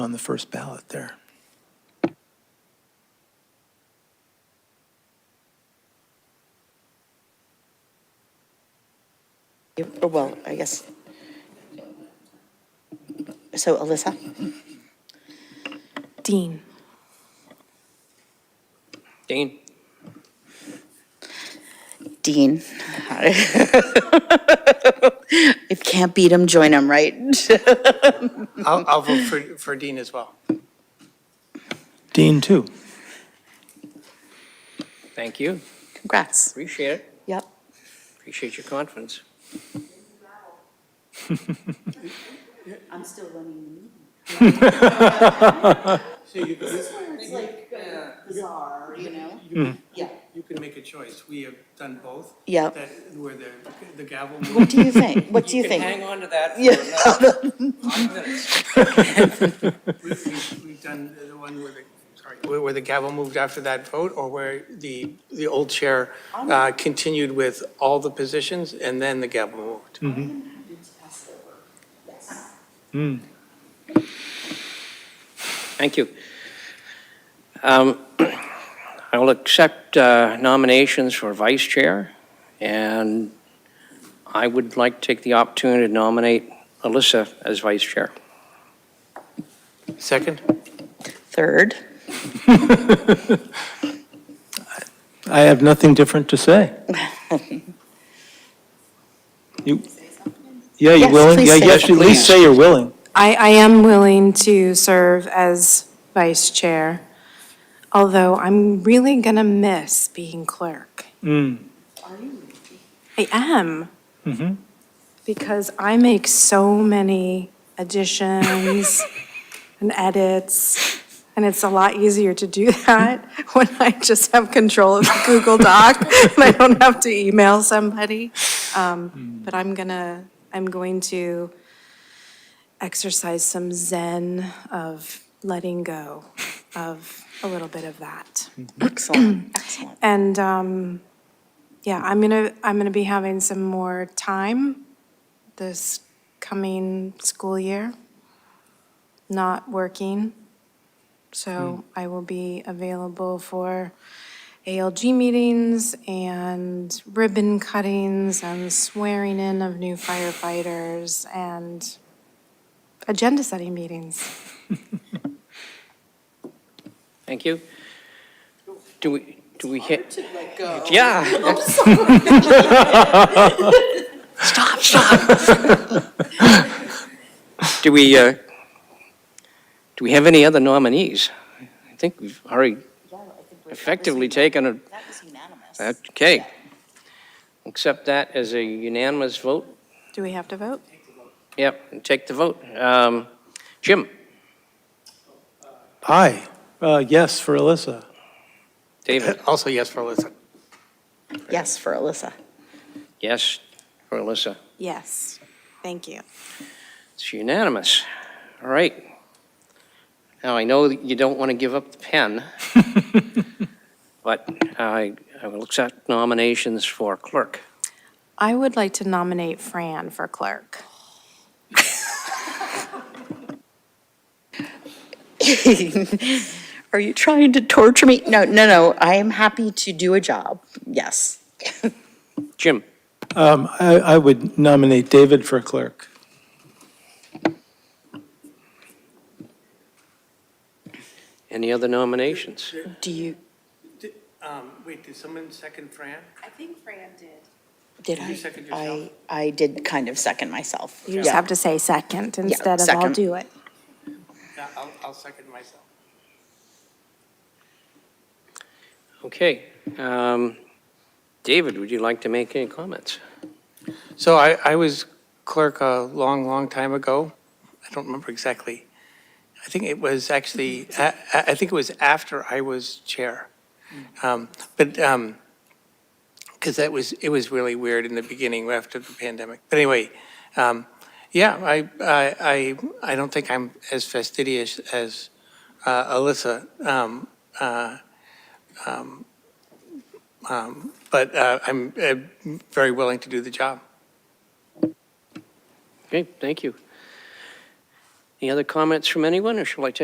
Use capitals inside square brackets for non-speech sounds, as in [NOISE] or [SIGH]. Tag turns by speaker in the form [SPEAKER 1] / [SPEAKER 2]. [SPEAKER 1] on the first ballot there.
[SPEAKER 2] You- or, Well, I guess. So Alyssa?
[SPEAKER 3] Dean.
[SPEAKER 4] Dean.
[SPEAKER 2] Dean. [LAUGHS] If can't beat 'em, join 'em, right? [LAUGHS]
[SPEAKER 5] I'll, I'll vote for, for Dean as well.
[SPEAKER 1] Dean, too.
[SPEAKER 4] Thank you.
[SPEAKER 2] Congrats.
[SPEAKER 4] Appreciate it.
[SPEAKER 2] Yep.
[SPEAKER 4] Appreciate your confidence.
[SPEAKER 2] I'm still running [LAUGHS]
[SPEAKER 5] So you can,
[SPEAKER 2] the meeting. It's like bizarre, you know? Yeah.
[SPEAKER 5] you can make a choice. We have done both.
[SPEAKER 2] Yeah.
[SPEAKER 5] That, where the, the gavel
[SPEAKER 2] [LAUGHS] What do you think? What do you
[SPEAKER 4] can
[SPEAKER 2] think?
[SPEAKER 4] hang on to that
[SPEAKER 2] Yeah.
[SPEAKER 4] for another five minutes.
[SPEAKER 5] We've, we've- we've done the one where the, sorry, where where the gavel moved after that vote, or where the, the old chair uh, continued with all the positions, and then the gavel moved?
[SPEAKER 4] Thank you. Um, [CLEARS THROAT] I will accept uh, nominations for vice chair, and I would like to take the opportunity to nominate Alyssa as vice chair.
[SPEAKER 5] Second?
[SPEAKER 2] Third? [LAUGHS]
[SPEAKER 1] I have nothing different to say. You, yeah, you
[SPEAKER 2] Yes,
[SPEAKER 1] willing?
[SPEAKER 2] please
[SPEAKER 1] Yeah,
[SPEAKER 2] say
[SPEAKER 1] yes, at
[SPEAKER 2] something.
[SPEAKER 1] least say you're willing.
[SPEAKER 3] I, I am willing to serve as vice chair, although I'm really going to miss being clerk. I am. Because I make so many additions and edits, and it's a lot easier to do that [LAUGHS] when I just have control of the Google Doc and I don't have to email somebody. Um, But I'm gonna, I'm going to exercise some zen of letting go of a little bit of that.
[SPEAKER 2] Excellent, excellent.
[SPEAKER 3] And um, yeah, I'm gonna, I'm gonna be having some more time this coming school year, not working. So I will be available for ALG meetings and ribbon cuttings and swearing in of new firefighters and agenda setting meetings.
[SPEAKER 4] Thank you. Do we, do we hit? Yeah. [LAUGHS] Stop, stop. Do we, uh, do we have any other nominees? I think we've already effectively taken a,
[SPEAKER 2] That was unanimous.
[SPEAKER 4] okay. Accept that as a unanimous vote.
[SPEAKER 3] Do we have to vote?
[SPEAKER 4] Yep, and take the vote. Um, Jim,
[SPEAKER 1] Aye, uh, yes for Alyssa.
[SPEAKER 4] David,
[SPEAKER 5] Also yes for Alyssa.
[SPEAKER 2] Yes, for Alyssa.
[SPEAKER 4] yes, or Alyssa?
[SPEAKER 3] Yes. Thank you.
[SPEAKER 4] It's unanimous. All right. Now, I know that you don't want to give up the pen, but I, I will accept nominations for clerk.
[SPEAKER 3] I would like to nominate Fran for clerk.
[SPEAKER 2] [LAUGHS] Are you trying to torture me? No, no, no, I am happy to do a job, yes.
[SPEAKER 4] Jim,
[SPEAKER 1] Um, I, I would nominate David for clerk.
[SPEAKER 4] any other nominations?
[SPEAKER 2] Do you,
[SPEAKER 5] Um, Wait, did someone second Fran?
[SPEAKER 3] I think Fran did.
[SPEAKER 2] did
[SPEAKER 5] you
[SPEAKER 2] I?
[SPEAKER 5] second
[SPEAKER 2] I,
[SPEAKER 5] yourself?
[SPEAKER 2] I did kind of second myself.
[SPEAKER 3] You just have to say second instead of I'll
[SPEAKER 2] second.
[SPEAKER 3] do it.
[SPEAKER 5] Yeah, I'll, I'll second myself.
[SPEAKER 4] Okay. um, David, would you like to make any comments?
[SPEAKER 5] So I, I was clerk a long, long time ago. I don't remember exactly. I think it was actually, I, I I think it was after I was chair. Um, But, because that was, it was really weird in the beginning after the pandemic. But anyway, um, yeah, I, I, I- I don't think I'm as fastidious as uh, Alyssa. Um, uh, um, um, But uh, I'm uh, very willing to do the job.
[SPEAKER 4] Okay, thank you. Any other comments from anyone, or shall I take